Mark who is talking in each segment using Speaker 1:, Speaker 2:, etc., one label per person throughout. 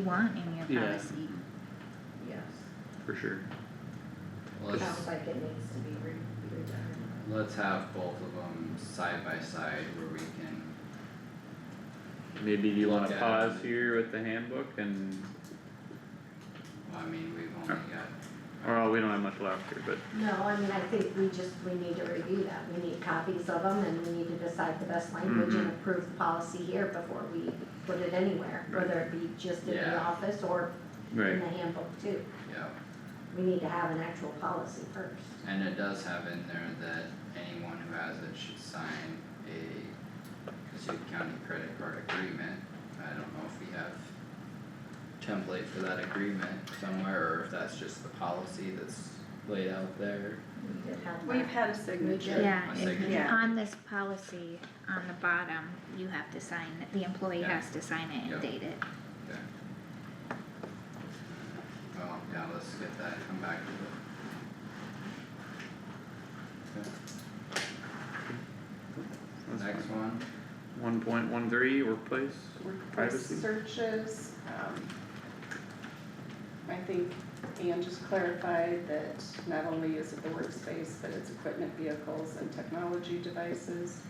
Speaker 1: you want in your
Speaker 2: Yeah.
Speaker 1: policy.
Speaker 3: Yes,
Speaker 2: for sure.
Speaker 4: Let's,
Speaker 3: sounds like it needs to be re- redone.
Speaker 4: let's have both of them side by side where we can,
Speaker 2: Maybe you wanna
Speaker 4: Yeah.
Speaker 2: pause here with the handbook and,
Speaker 4: I mean, we've only got,
Speaker 2: or we don't have much left here, but
Speaker 3: No, I mean, I think we just, we need to review that, we need copies of them, and we need to decide the best language and
Speaker 2: Mhm.
Speaker 3: approve the policy here before we put it anywhere,
Speaker 2: Right.
Speaker 3: whether it be just in the
Speaker 4: Yeah.
Speaker 3: office or in
Speaker 2: right,
Speaker 3: the handbook too.
Speaker 4: yeah,
Speaker 3: We need to have an actual policy first.
Speaker 4: and it does have in there that anyone who has it should sign a Cassuth County credit card agreement. I don't know if we have template for that agreement somewhere, or if that's just the policy that's laid out there.
Speaker 3: We could have
Speaker 5: We've
Speaker 3: that.
Speaker 5: had a signature.
Speaker 1: Yeah,
Speaker 4: My
Speaker 1: and
Speaker 4: signature.
Speaker 5: Yeah.
Speaker 1: on this policy, on the bottom, you have to sign, it. the employee
Speaker 4: Yeah.
Speaker 1: has to sign it
Speaker 4: Yeah.
Speaker 1: and date it.
Speaker 4: Okay. Well, yeah, let's get that, come back to
Speaker 2: that's
Speaker 4: it. Next
Speaker 2: fine.
Speaker 4: one,
Speaker 2: One point one three, workplace,
Speaker 5: Workplace
Speaker 2: Privacy.
Speaker 5: searches, um. I think Ann just clarified that not only is it the workspace, but it's equipment, vehicles and technology devices.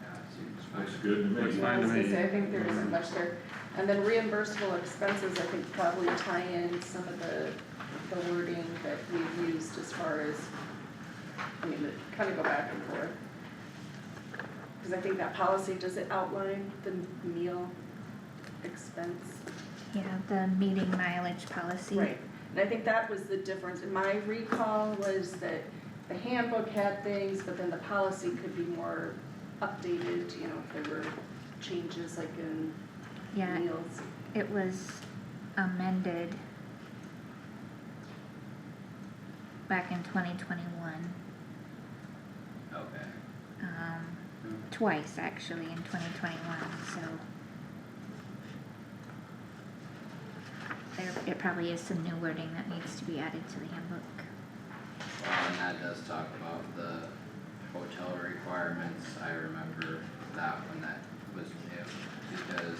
Speaker 4: yeah, seems
Speaker 6: Looks
Speaker 4: fine.
Speaker 6: good to me.
Speaker 2: Looks
Speaker 5: I was
Speaker 2: fine
Speaker 5: gonna
Speaker 2: to
Speaker 5: say, I
Speaker 2: me,
Speaker 5: think there isn't much there, and then reimbursable expenses, I think probably tie in some of the, the wording that we've used as far as. I mean, it kinda go back and forth. Cause I think that policy, does it outline the meal expense?
Speaker 1: Yeah, the meeting mileage policy.
Speaker 5: Right, and I think that was the difference, and my recall was that the handbook had things, but then the policy could be more updated, you know, if there were changes like in
Speaker 1: Yeah,
Speaker 5: meals.
Speaker 1: it was amended back in twenty twenty-one,
Speaker 4: Okay,
Speaker 1: um,
Speaker 4: Mm-hmm.
Speaker 1: twice actually in twenty twenty-one, so. There, it probably is some new wording that needs to be added to the handbook.
Speaker 4: well, and that does talk about the hotel requirements, I remember that one that was new, because,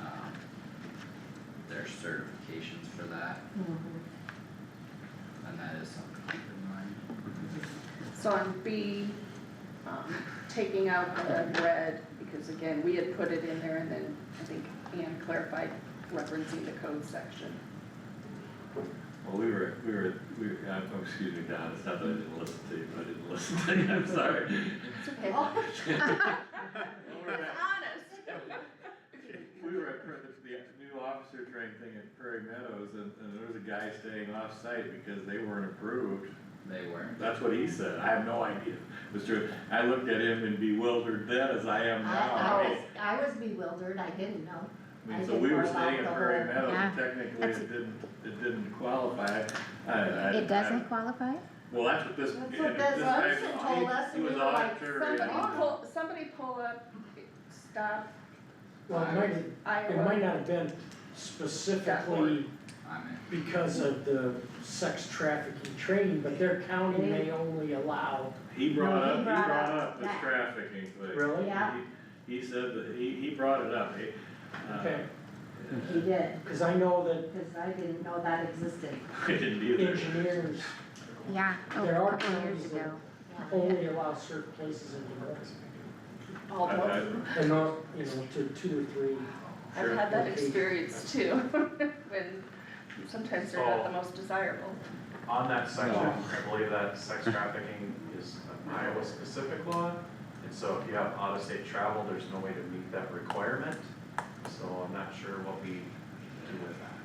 Speaker 4: um, there's certifications for that,
Speaker 3: Mhm.
Speaker 4: and that is something to keep in mind.
Speaker 5: So on B, um, taking out the red, because again, we had put it in there and then I think Ann clarified referencing the code section.
Speaker 6: Well, we were, we were, we, were- I'm, oh, excuse me, Don, it's not that I didn't listen to you, but I didn't listen to you, I'm sorry.
Speaker 5: It's okay. honest.
Speaker 6: We were at, Pra- the new officer training thing at Prairie Meadows, and, and there was a guy staying off-site because they weren't approved.
Speaker 4: They weren't,
Speaker 6: That's what he said, I have no idea, Mr., I looked at him and bewildered then as I am now.
Speaker 3: I, I
Speaker 1: Uh,
Speaker 6: I
Speaker 1: oh,
Speaker 3: was, I was bewildered, I didn't know.
Speaker 6: I mean,
Speaker 3: I
Speaker 6: so
Speaker 3: didn't
Speaker 6: we were
Speaker 3: know about
Speaker 6: staying at
Speaker 3: the
Speaker 6: Prairie
Speaker 3: whole-
Speaker 6: Meadows, and
Speaker 1: Yeah,
Speaker 6: technically
Speaker 1: that's-
Speaker 6: it didn't, it didn't qualify, I, I.
Speaker 1: It
Speaker 6: I-
Speaker 1: doesn't qualify?
Speaker 6: Well, that's what this.
Speaker 3: That's what
Speaker 6: and it-
Speaker 3: that
Speaker 6: this guy-
Speaker 3: Larson told
Speaker 6: he-
Speaker 3: us,
Speaker 6: he
Speaker 3: and
Speaker 6: was
Speaker 3: we were like,
Speaker 6: auditor and-
Speaker 5: Somebody pull, somebody pull up, stop
Speaker 7: Well, it might, it might
Speaker 5: Iowa.
Speaker 7: not have been specifically
Speaker 4: I'm in.
Speaker 7: because of the sex trafficking training, but their county may only allow,
Speaker 6: He brought
Speaker 3: No, he
Speaker 6: up, he
Speaker 3: brought up
Speaker 6: brought up the
Speaker 3: that.
Speaker 6: trafficking thing.
Speaker 7: really?
Speaker 3: Yeah.
Speaker 6: He, he said that, he, he brought it up, he, uh,
Speaker 7: Okay.
Speaker 3: He did,
Speaker 7: Cause I know that
Speaker 3: cause I didn't know that existed.
Speaker 6: I didn't either.
Speaker 7: engineers
Speaker 1: Yeah, oh,
Speaker 7: There are
Speaker 1: a couple years
Speaker 7: times
Speaker 1: ago.
Speaker 3: Yeah.
Speaker 7: only allow certain places in the world.
Speaker 5: All
Speaker 6: I- I-
Speaker 5: both.
Speaker 7: And not, you know, to two or three,
Speaker 5: I've had that
Speaker 7: Sure.
Speaker 5: experience too, when sometimes they're not the most desirable.
Speaker 8: On that section, I believe that sex trafficking is an Iowa specific law. And so if you have out of state travel, there's no way to meet that requirement. So I'm not sure what we do with that.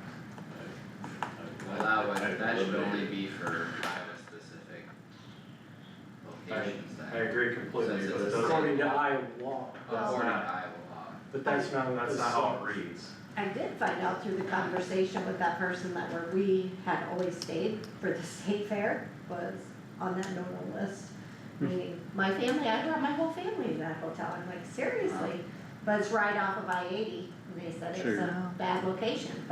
Speaker 4: Well, that
Speaker 6: I- I-
Speaker 4: would, that should only be for Iowa specific locations
Speaker 8: I
Speaker 4: then,
Speaker 8: agree completely, but it doesn't,
Speaker 7: according to Iowa law,
Speaker 4: according to Iowa law.
Speaker 7: but that's not what
Speaker 8: that's
Speaker 7: this.
Speaker 8: not how it reads.
Speaker 3: I did find out through the conversation with that person that where we had always stayed for the state fair was on that no-no list. Meaning, my family, I brought my whole family to that hotel, I'm like, seriously? But it's right off of I eighty, and they said it's
Speaker 2: Sure.
Speaker 3: a bad location,